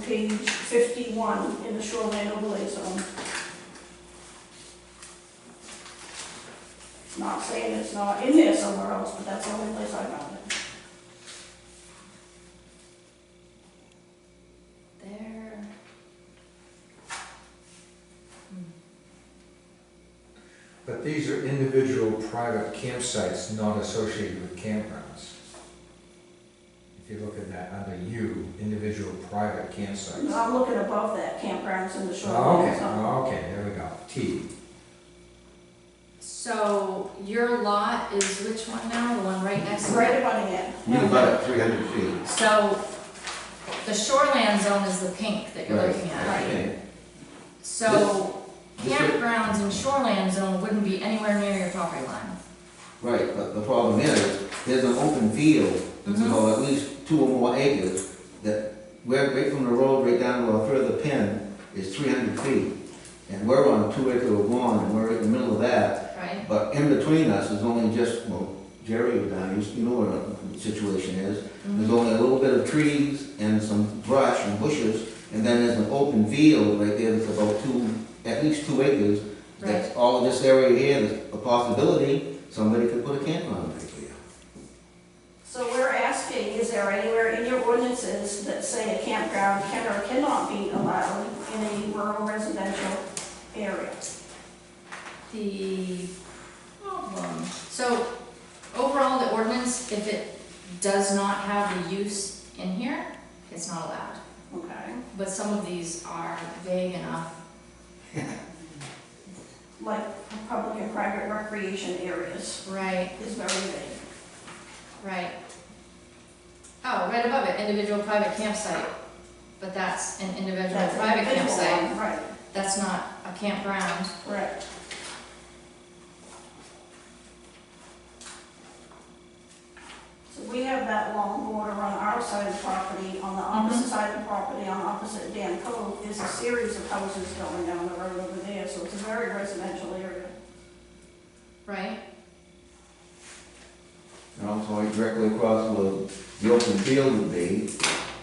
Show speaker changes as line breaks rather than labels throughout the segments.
page fifty-one in the shoreline overlay zone. Not saying it's not in there somewhere else, but that's the only place I found it.
There.
But these are individual private campsites not associated with campgrounds. If you look at that under U, individual private
No,
campsites.
I'm looking above that, campgrounds in the
Oh,
shoreline
okay,
zone.
oh, okay, there we go, T.
So your lot is which one now? The one right next
It's
to it?
right abutting it.
We about three hundred feet.
So the shoreland zone is the pink that you're
Right.
looking at, right?
Okay.
So
This- this-
campgrounds in shoreland zone wouldn't be anywhere near your property line.
Right, but the problem is, there's an open field, which is
Mhm.
all at least two or more acres, that we're, right from the road right down to our further pin is three hundred feet. And we're on a two acre lawn, and we're in the middle of that,
Right.
but in between us is only just, well, Jerry was down, you s- you know what the situation is. There's only a little bit of trees and some brush and bushes, and then there's an open field right there that's about two, at least two acres, That's all of this area here, there's a possibility, somebody could put a campground right there.
So we're asking, is there anywhere in your ordinances that say a campground can or cannot be allowed in a rural residential area?
The problem, so overall, the ordinance, if it does not have the use in here, it's not allowed.
Okay,
But some of these are vague enough.
like public and private recreation areas
Right,
is very vague.
right. Oh, right above it, individual private campsite, but that's an individual
That's an
private
individual
campsite,
one, Right,
that's not a campground.
right. So we have that long border on our side of the property, on the opposite side of the property, on opposite Dan Cove, there's a series of houses going down the road over there, so it's a very residential area.
Right,
And also right directly across where the open field would be,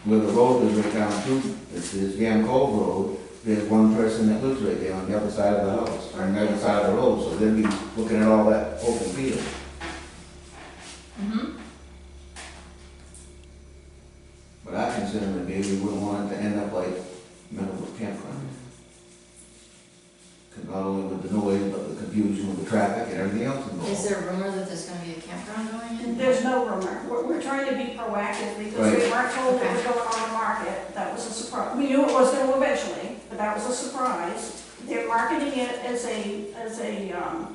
where the road is right down to, this is Yam Cove Road, there's one person that lives right there on the other side of the house, or on the other side of the road, so they'd be looking at all that open field.
mm-hmm,
But I consider that maybe we wouldn't want it to end up like Meadowbrook Campground. Because not only with the noise, but the confusion with the traffic and everything else involved.
is there rumor that there's gonna be a campground going in?
There's no rumor. We're, we're trying to be proactive because we
Right.
weren't told it was going on the market. That was a surprise. We knew it was going to eventually, but that was a surprise. They're marketing it as a, as a, um,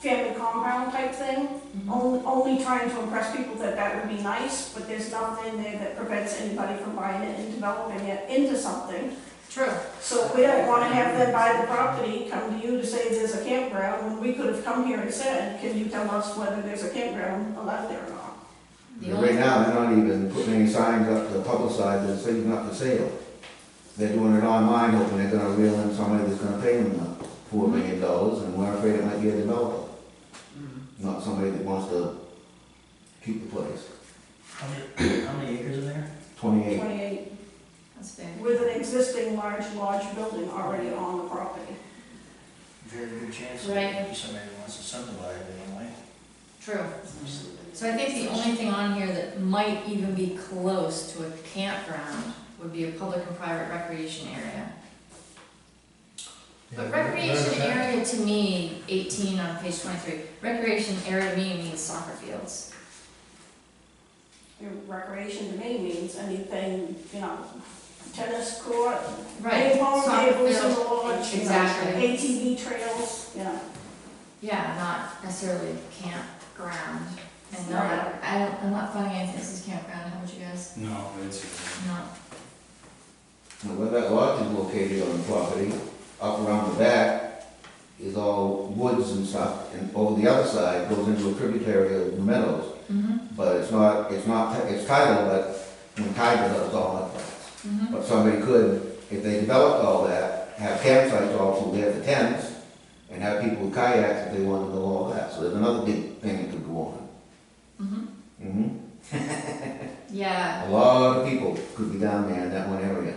family compound type thing.
Mhm.
Only, only trying to impress people that that would be nice, but there's nothing there that prevents anybody from buying it and developing it into something.
True,
So we don't want to have them buy the property, come to you to say there's a campground, when we could have come here and said, can you tell us whether there's a campground allowed there or not?
the
Right
only,
now, they're not even putting any signs up to publicize it, saying not for sale. They're doing it online, hoping they're gonna reel in somebody that's gonna pay them the four
Mm-hmm.
million dollars, and we're afraid it might be a developer.
Mm-hmm.
Not somebody that wants to keep the place,
How many, how many acres are there?
twenty-eight.
28,
that's big.
with an existing large lodge building already on the property.
Very good chance
Right.
that somebody wants to subdivide it anyway.
True. So I think the only thing on here that might even be close to a campground would be a public and private recreation area. But
Yeah, where- where is
recreation
that?
area to me, eighteen on page twenty-three, recreation area to me means soccer fields.
Your recreation to me means anything, you know, tennis court,
Right,
ping pong
soccer
tables in the
field,
lodge, you know,
exactly.
ATV trails, you know.
yeah, not necessarily campground. And
Right.
not, I don't, I'm not finding anything that says campground, how about you guys?
No, it's,
Not,
Now, where that lodge is located on the property, up around the back, is all woods and stuff, and over the other side goes into a tributary of the meadows.
mm-hmm,
But it's not, it's not, it's titled, but when titled, it's all in place.
mm-hmm,
But somebody could, if they developed all that, have campsites also there for tents, and have people with kayaks if they wanted to go all that. So there's another big thing that could go on.
mm-hmm,
hmm
yeah,
A lot of people could be down there in that one area.